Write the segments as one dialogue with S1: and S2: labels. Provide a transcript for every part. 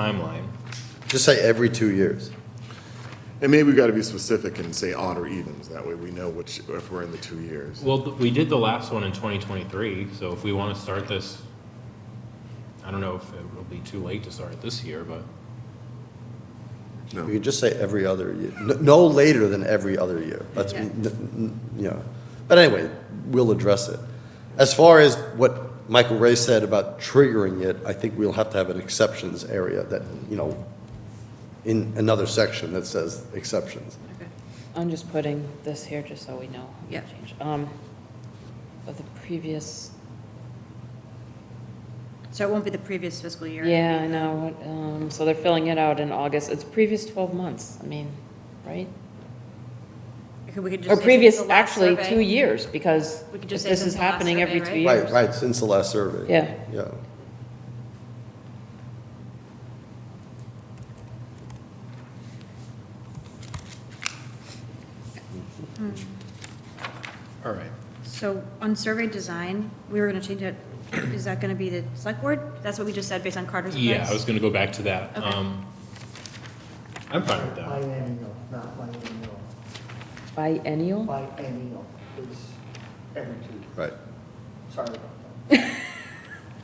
S1: timeline.
S2: Just say every two years.
S3: And maybe we've got to be specific and say odd or evens, that way we know which, if we're in the two years.
S1: Well, th- we did the last one in 2023, so if we want to start this, I don't know if it'll be too late to start it this year, but
S2: You could just say every other year, N- no later than every other year. That's,
S4: Yeah.
S2: n- n- you know, but anyway, we'll address it. As far as what Michael Ray said about triggering it, I think we'll have to have an exceptions area that, you know, in another section that says exceptions.
S5: I'm just putting this here just so we know.
S4: Yeah.
S5: Change. Um, of the previous,
S4: So it won't be the previous fiscal year?
S5: yeah, I know, what, um, so they're filling it out in August, it's previous twelve months, I mean, right?
S4: Okay, we could just
S5: Or
S4: say
S5: previous,
S4: the last
S5: actually,
S4: survey.
S5: two years, because
S4: We could
S5: if
S4: just say
S5: this
S4: since
S5: is
S4: the last
S5: happening every
S4: survey,
S5: two
S4: right?
S2: Right,
S5: years.
S2: right, since the last survey.
S5: Yeah.
S2: Yeah.
S1: all right.
S4: So on survey design, we were going to change it, is that going to be the select board? That's what we just said based on Carter's advice?
S1: Yeah, I was going to go back to that.
S4: Okay.
S1: Um, I'm fine with that.
S6: Biennial, not biennial.
S5: Biennial?
S6: Biennial is every two years.
S2: Right.
S6: Sorry about that.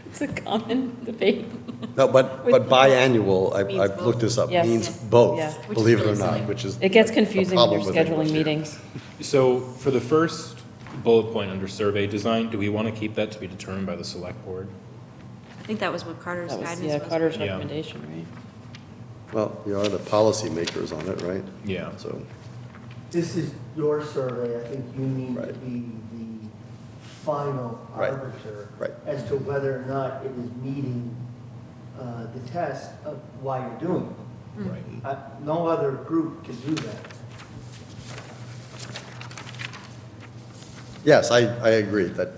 S5: It's a common debate.
S2: No, but, but biannual,
S4: Means
S2: I, I've looked this up,
S5: Yes.
S2: means
S4: Yeah.
S5: Yeah.
S2: both,
S5: Which
S4: is
S2: believe it or
S4: really silly.
S2: not, which is.
S5: It gets
S2: the- the
S5: confusing when you're
S2: problem with English.
S5: scheduling meetings.
S1: So for the first bullet point under survey design, do we want to keep that to be determined by the select board?
S4: I think that was what Carter's
S5: That
S4: guidance
S5: was,
S4: was.
S5: yeah, Carter's
S1: Yeah.
S5: recommendation, right?
S2: Well, you are the policy makers on it, right?
S1: Yeah.
S2: So.
S6: This is your survey, I think you need to
S2: Right.
S6: be the final
S2: Right.
S6: arbiter
S2: Right.
S6: as to whether or not it is meeting uh, the test of why you're doing it.
S1: Right.
S2: Mm-hmm.
S6: Uh, No other group can do that.
S2: Yes, I, I agree that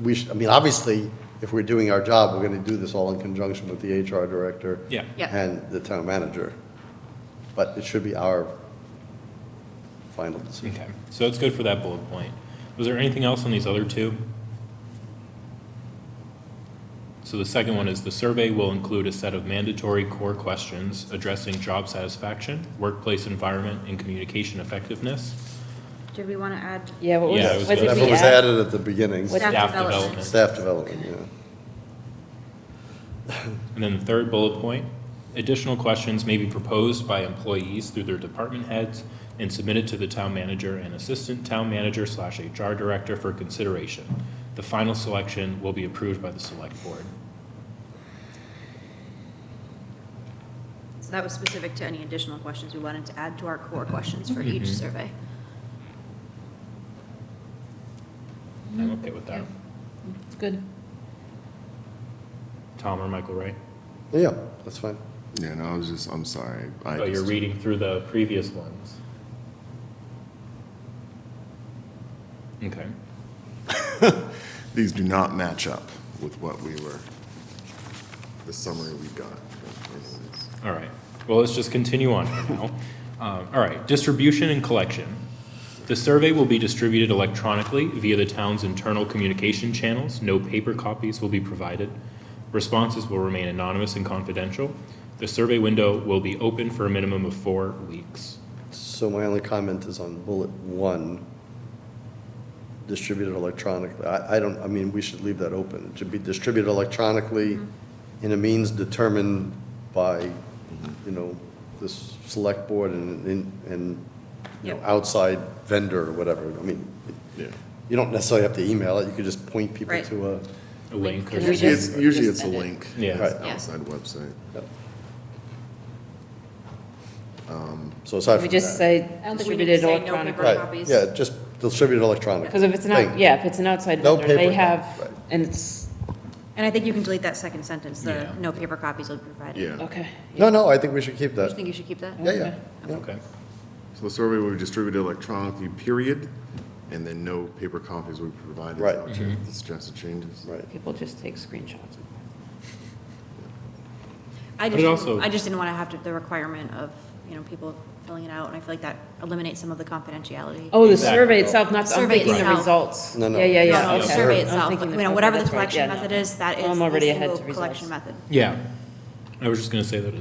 S2: we should, I mean, obviously, if we're doing our job, we're going to do this all in conjunction with the HR director.
S1: Yeah.
S4: Yeah.
S2: And the town manager. But it should be our final decision.
S1: Okay, so it's good for that bullet point. Was there anything else on these other two? So the second one is the survey will include a set of mandatory core questions addressing job satisfaction, workplace environment, and communication effectiveness.
S4: Did we want to add
S5: Yeah, what
S1: Yeah, it was
S5: was, what
S1: good.
S5: did
S2: Whatever
S5: we
S2: was
S5: add?
S2: added at the beginning,
S5: What-
S4: staff
S1: Staff
S4: development?
S1: development.
S2: staff development, yeah.
S1: And then the third bullet point, additional questions may be proposed by employees through their department heads and submitted to the town manager and assistant town manager slash HR director for consideration. The final selection will be approved by the select board.
S4: So that was specific to any additional questions we wanted to add to our core questions for
S1: Mm-hmm.
S4: each survey.
S1: I'm okay with that.
S5: Good.
S1: Tom or Michael, right?
S2: Yeah, that's fine.
S3: Yeah, no, I was just, I'm sorry. I
S1: Oh, you're
S3: just-
S1: reading through the previous ones. Okay.
S3: These do not match up with what we were, the summary we got.
S1: All right. Well, let's just continue on for now. Um, all right. Distribution and collection. The survey will be distributed electronically via the town's internal communication channels. No paper copies will be provided. Responses will remain anonymous and confidential. The survey window will be open for a minimum of four weeks.
S2: So my only comment is on bullet one, distributed electronically. I, I don't, I mean, we should leave that open. It should be distributed electronically
S5: Mm-hmm.
S2: in a means determined by, you know, this select board and, and- and, you know,
S4: Yep.
S2: outside vendor or whatever. I mean,
S3: Yeah.
S2: you don't necessarily have to email it, you could just point people
S4: Right.
S2: to a,
S1: A link or
S5: Can I
S3: Usually
S5: just-
S3: it's, usually
S5: just
S3: it's a
S5: edit?
S3: link.
S1: Yeah.
S3: It's
S2: Right.
S3: an
S4: Yeah.
S3: Outside website.
S2: so aside
S5: We
S2: from
S5: just
S2: that.
S5: say
S4: don't think we need to
S5: distributed
S4: say no paper
S5: electronically.
S2: Right,
S4: copies.
S2: Yeah, just distributed electronically.
S5: Because if it's
S2: Thank
S5: not,
S2: you.
S5: yeah, if it's an outside
S2: No
S5: vendor, they
S2: paper,
S5: have,
S2: right.
S5: and it's,
S4: And I think you can delete that second sentence, the
S1: Yeah.
S4: no paper copies will be provided.
S3: Yeah.
S5: okay.
S2: No, no, I think we should keep
S4: Do you
S2: that.
S4: think you should keep that?
S2: Yeah, yeah, yeah.
S1: Okay.
S3: So the survey will be distributed electronically, period, and then no paper copies will be provided.
S2: Right.
S3: I'll
S1: Mm-hmm.
S3: check The suggested changes.
S2: Right.
S5: People just take screenshots.
S1: But
S4: I just,
S1: it
S4: didn't-
S1: also-
S4: I just didn't want to have to, the requirement of, you know, people filling it out, and I feel like that eliminates some of the confidentiality.
S5: Oh, the
S1: Exactly.
S5: survey itself, not, I'm
S4: Survey
S5: thinking the
S4: itself.
S5: results.
S2: No, no.
S5: Yeah, yeah, yeah,
S4: No, no,
S5: okay.
S4: the survey
S5: I'm
S4: itself,
S5: thinking
S4: you know, whatever the
S5: that's right,
S4: collection
S5: yeah, no.
S4: method is, that is
S5: I'm
S4: the
S5: already ahead
S4: single
S5: to
S4: collection
S5: results.
S4: method.
S1: Yeah. I was just going to say that